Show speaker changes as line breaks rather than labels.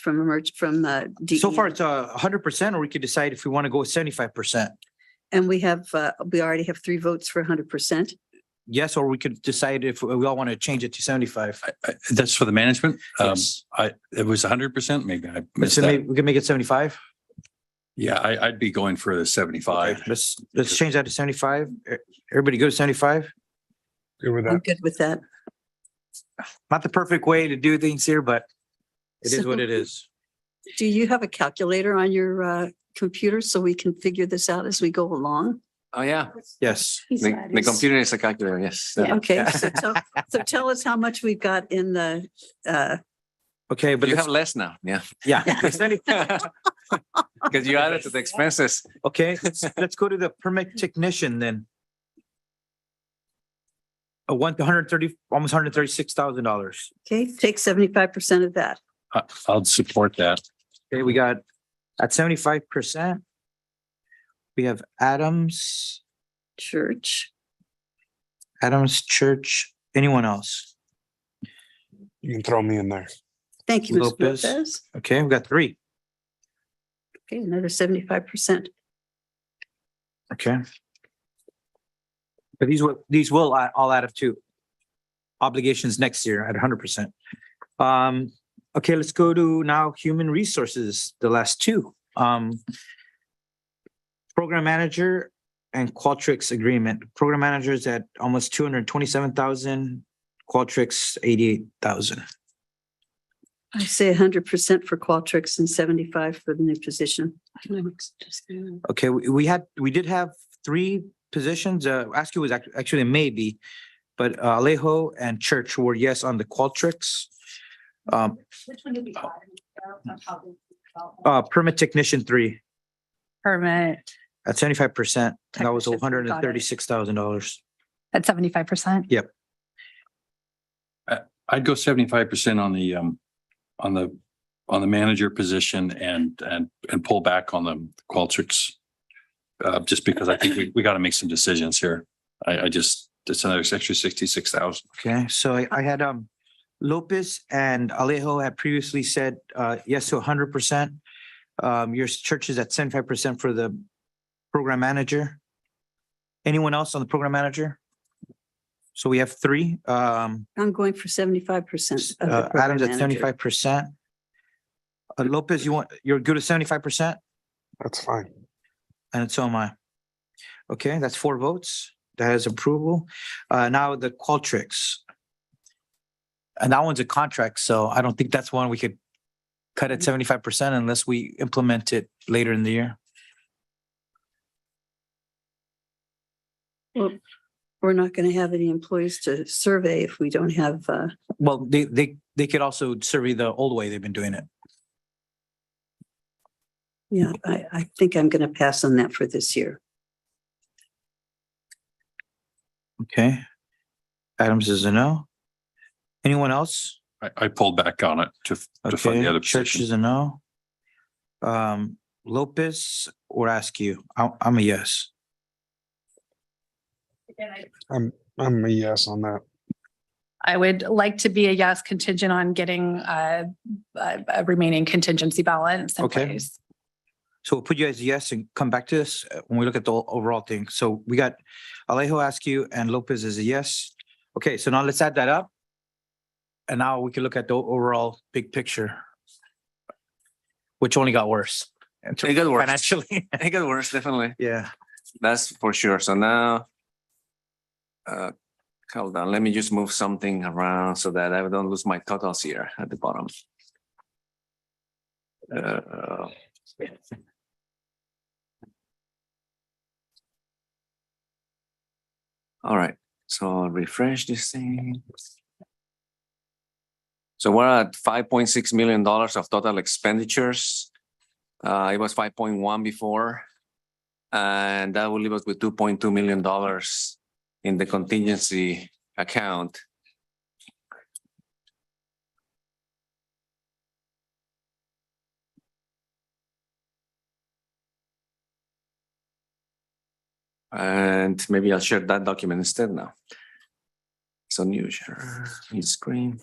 from emerg, from uh DEM.
So far, it's a hundred percent, or we could decide if we want to go seventy-five percent.
And we have, uh, we already have three votes for hundred percent.
Yes, or we could decide if we all want to change it to seventy-five.
I- I- Uh, That's for the management. Um,
Yes.
I, it was hundred percent, maybe I missed
So maybe
that.
we can make it seventy-five.
Yeah, I, I'd be going for the seventy-five.
Let's, let's change that to seventy-five. E- Everybody go to seventy-five?
Good with
I'm
that.
good with that.
Not the perfect way to do things here, but it is
So-
what it is.
Do you have a calculator on your uh computer so we can figure this out as we go along?
Oh, yeah.
Yes.
The, the computer is a calculator, yes.
Yeah, Okay, so tell, so tell us how much we've got in the uh,
Okay,
But
but
you have
let's,
less now, yeah.
yeah. let's send it-
Because you added to the expenses.
Okay, let's, let's go to the permit technician then. A one, hundred thirty, almost hundred thirty-six thousand dollars.
okay, take seventy-five percent of that.
I, I'll support that.
Okay, we got at seventy-five percent. We have Adams,
Church,
Adams Church, anyone else?
You can throw me in there.
thank you, Mr.
Lopez.
Lopez.
Okay, we got three.
Okay, another seventy-five percent.
Okay. But these will, these will a- all add up to obligations next year at hundred percent. Um, okay, let's go to now human resources, the last two. Um, program manager and Qualtrics agreement. Program managers at almost two hundred twenty-seven thousand, Qualtrics eighty-eight thousand.
I say hundred percent for Qualtrics and seventy-five for the new position.
Okay, we, we had, we did have three positions, uh, Askew was act- actually a maybe, but uh, Alejo and Church were yes on the Qualtrics. Um,
Which one did we buy? Uh, how did we develop
uh, permit technician three
permit
at seventy-five percent, that was
Technician, got
hundred
it.
and thirty-six thousand dollars.
at seventy-five percent.
I'd go seventy-five percent on the, um, on the, on the manager position and, and, and pull back on the Qualtrics. Uh, just because I think we, we got to make some decisions here. I, I just, it's another extra sixty-six thousand.
Okay, so I, I had, um, Lopez and Alejo had previously said, uh, yes to hundred percent. Um, your church is at seventy-five percent for the program manager. Anyone else on the program manager? So we have three, um,
I'm going for seventy-five percent.
Uh, Adams at seventy-five percent. Uh, Lopez, you want, you're good at seventy-five percent,
That's fine.
and so am I. Okay, that's four votes. That is approval. Uh, now the Qualtrics. And that one's a contract, so I don't think that's one we could cut at seventy-five percent unless we implement it later in the year.
We're not going to have any employees to survey if we don't have, uh,
Well, they, they, they could also survey the old way they've been doing it.
yeah, I, I think I'm going to pass on that for this year.
Okay. Adams is a no. Anyone else?
I, I pulled back on it to, to fund
Okay,
the other
Church
position.
is a no. Um, Lopez or Askew, I, I'm a yes.
it? Again, I-
I'm, I'm a yes on that.
I would like to be a yes contingent on getting uh, a a remaining contingency balance in
Okay.
place.
So we'll put you as a yes and come back to this uh, when we look at the o- overall thing. So we got Alejo, Askew and Lopez is a yes. Okay, so now let's add that up. And now we can look at the o- overall big picture. Which only got worse. in
It got worse.
Financially,
It got worse, definitely.
yeah.
That's for sure. So now, uh, hold on, let me just move something around so that I don't lose my totals here at the bottom. Uh, All right, so I'll refresh this thing. So we're at five point six million dollars of total expenditures. Uh, it was five point one before. And that will leave us with two point two million dollars in the contingency account. And maybe I'll share that document instead now. So new share, new screen.